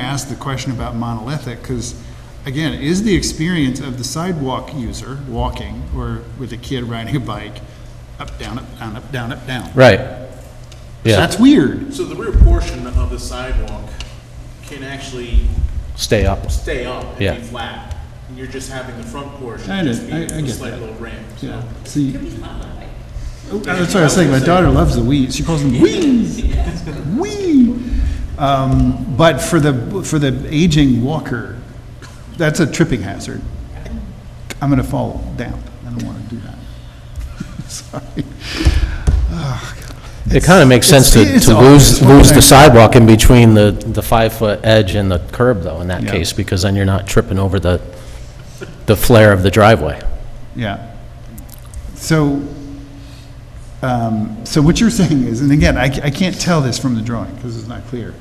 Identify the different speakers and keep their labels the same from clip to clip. Speaker 1: asked the question about monolithic, because again, is the experience of the sidewalk user walking or with a kid riding a bike, up, down, up, down, up, down, up, down?
Speaker 2: Right. Yeah,
Speaker 1: That's weird.
Speaker 3: So the rear portion of the sidewalk can actually
Speaker 2: stay up.
Speaker 3: stay up
Speaker 2: Yeah.
Speaker 3: and be flat. And you're just having the front portion
Speaker 1: I know,
Speaker 3: just be
Speaker 1: I- I
Speaker 3: a
Speaker 1: get
Speaker 3: slight
Speaker 1: that.
Speaker 3: little ramp,
Speaker 1: Yeah,
Speaker 3: so.
Speaker 1: see. Oh, That's what I was saying, my daughter loves the wheeze, she calls them wheeze, whee. Um, but for the, for the aging walker, that's a tripping hazard. I'm gonna fall down, I don't wanna do that. Sorry.
Speaker 2: It kind of makes sense to,
Speaker 1: It's- it's
Speaker 2: to lose,
Speaker 1: obvious what
Speaker 2: lose
Speaker 1: they're-
Speaker 2: the sidewalk in between the, the five-foot edge and the curb, though, in that
Speaker 1: Yeah.
Speaker 2: case, because then you're not tripping over the, the flare of the driveway.
Speaker 1: Yeah. So, um, so what you're saying is, and again, I, ca- I can't tell this from the drawing because it's not clear,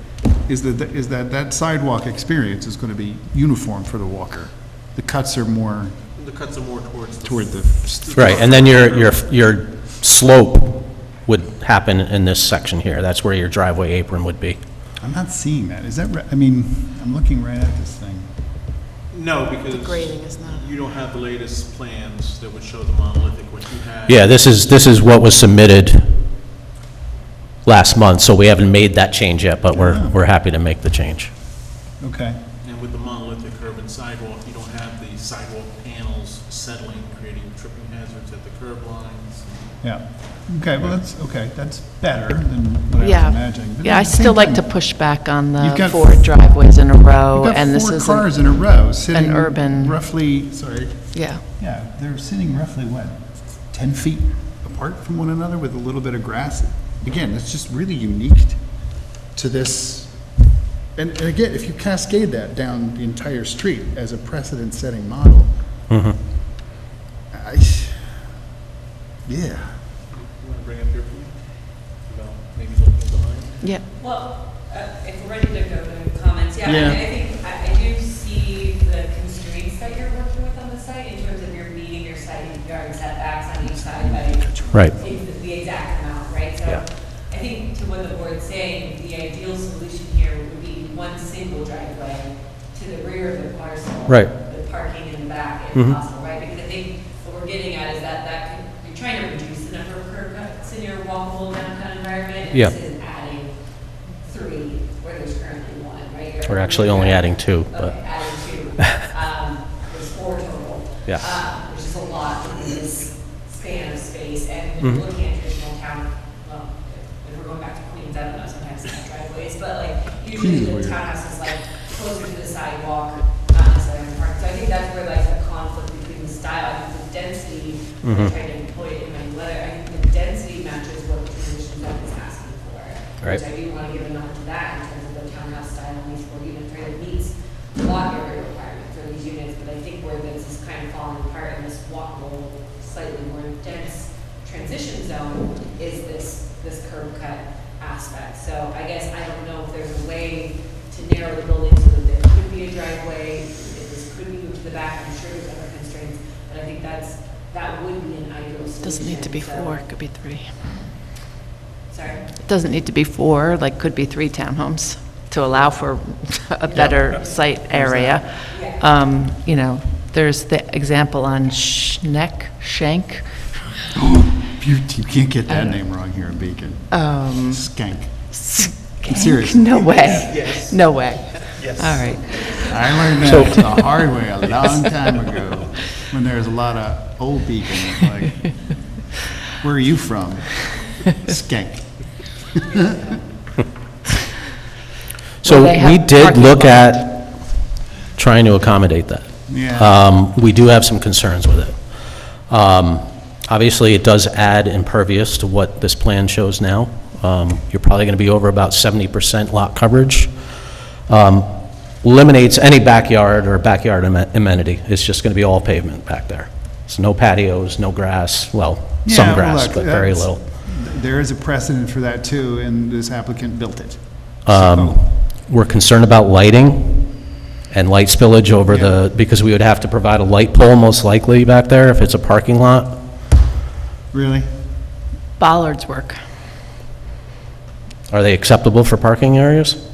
Speaker 1: is that, is that that sidewalk experience is going to be uniform for the walker. The cuts are more
Speaker 3: The cuts are more towards the.
Speaker 1: toward the.
Speaker 2: Right, and then your, your, your slope would happen in this section here. That's where your driveway apron would be.
Speaker 1: I'm not seeing that. Is that, ri- I mean, I'm looking right at this thing.
Speaker 3: No, because
Speaker 4: grading is uh, not-
Speaker 3: you don't have the latest plans that would show the monolithic, what you had.
Speaker 2: Yeah, this is, this is what was submitted last month, so we haven't made that change yet, but we're,
Speaker 1: Oh.
Speaker 2: we're happy to make the change.
Speaker 1: Okay.
Speaker 3: And with the monolithic curb and sidewalk, you don't have the sidewalk panels settling, creating tripping hazards at the curb lines.
Speaker 1: Yeah. Okay, well, that's, okay, that's better than what I was
Speaker 4: Yeah,
Speaker 1: imagining. But
Speaker 4: yeah,
Speaker 1: at
Speaker 4: I
Speaker 1: the same
Speaker 4: still like
Speaker 1: time,
Speaker 4: to push back on
Speaker 1: You've
Speaker 4: the
Speaker 1: got
Speaker 4: four
Speaker 1: f-
Speaker 4: driveways in a row,
Speaker 1: You've got
Speaker 4: and this
Speaker 1: four cars
Speaker 4: isn't,
Speaker 1: in a row sitting.
Speaker 4: urban-
Speaker 1: Roughly, sorry,
Speaker 4: yeah.
Speaker 1: Yeah, they're sitting roughly, what, 10 feet apart from one another with a little bit of grass? Again, it's just really unique t- to this, and and again, if you cascade that down the entire street as a precedent-setting model, Mm-hmm. I, yeah.
Speaker 3: You want to bring up your point about maybe looking behind?
Speaker 4: Yeah,
Speaker 5: Well, uh, if we're ready to go to comments, yeah, I mean,
Speaker 1: Yeah.
Speaker 5: I think, I I do see the constraints that you're working with on the site in terms of your meeting your side yard setbacks on each side by
Speaker 2: Right.
Speaker 5: ex- the exact amount, right?
Speaker 2: Yeah.
Speaker 5: So I think to what the board's saying, the ideal solution here would be one single driveway to the rear of the parcel.
Speaker 2: Right.
Speaker 5: With parking in the back if
Speaker 2: Mhm.
Speaker 5: possible, right? Because I think what we're getting at is that that, can- you're trying to reduce the number of curb cuts in your walkable downtown environment. and
Speaker 2: Yeah.
Speaker 5: This is adding three where there's currently one, right? You're-
Speaker 2: We're actually only adding two, but-
Speaker 5: Okay, adding two. Um, There's four total.
Speaker 2: Yeah.
Speaker 5: Uh, Which is a lot in this span of space, and when you're looking at traditional town, well, if we're going back to Queens, I don't know, sometimes it's not driveways, but like, usually
Speaker 1: Queens
Speaker 5: the
Speaker 1: is weird.
Speaker 5: townhouse is like closer to the sidewalk, not necessarily in the park. So I think that's where like the conflict between the style, I think the density, I'm trying to employ it in my letter, I think the density matches what the traditional town is asking for.
Speaker 2: Right.
Speaker 5: Which I do want to give a nod to that in terms of the townhouse style, and these four unit trailer meets the lot area requirement for these units, but I think where this is kind of falling apart in this walkable, slightly more dense transition zone is this, this curb cut aspect. So I guess I don't know if there's a way to narrow the building so that there could be a driveway, if this could be moved to the back, I'm sure there's other constraints, but I think that's, that would be an ideal solution.
Speaker 4: doesn't need to be
Speaker 5: So-
Speaker 4: four, it could be three.
Speaker 5: Sorry?
Speaker 4: It doesn't need to be four, like, could be three townhomes to allow for a better site area. Um, You know, there's the example on Schneck, Shank,
Speaker 1: You you can't get that name wrong here in Beacon.
Speaker 4: um,
Speaker 1: Skank. serious.
Speaker 4: Skank, no way, no way. Yes. All right.
Speaker 1: I learned that the hard way a long time ago, when there was a lot of old people, like, where are you from? Skank.
Speaker 2: So
Speaker 4: Well, they
Speaker 2: we
Speaker 4: have
Speaker 2: did
Speaker 4: parking
Speaker 2: look
Speaker 4: lot.
Speaker 2: at trying to accommodate that.
Speaker 1: Yeah,
Speaker 2: Um, We do have some concerns with it. Um, Obviously, it does add impervious to what this plan shows now. Um, You're probably going to be over about 70% lot coverage. Um, Eliminates any backyard or backyard amen- amenity. It's just going to be all pavement back there. So no patios, no grass, well,
Speaker 1: Yeah,
Speaker 2: some
Speaker 1: well,
Speaker 2: grass,
Speaker 1: look,
Speaker 2: but very
Speaker 1: that's-
Speaker 2: little.
Speaker 1: there is a precedent for that too, and this applicant built it.
Speaker 2: Um, We're concerned about lighting and light spillage over the, because we would have to provide a light pole most likely back there if it's a parking lot.
Speaker 1: Really?
Speaker 4: Bollards work.
Speaker 2: Are they acceptable for parking areas?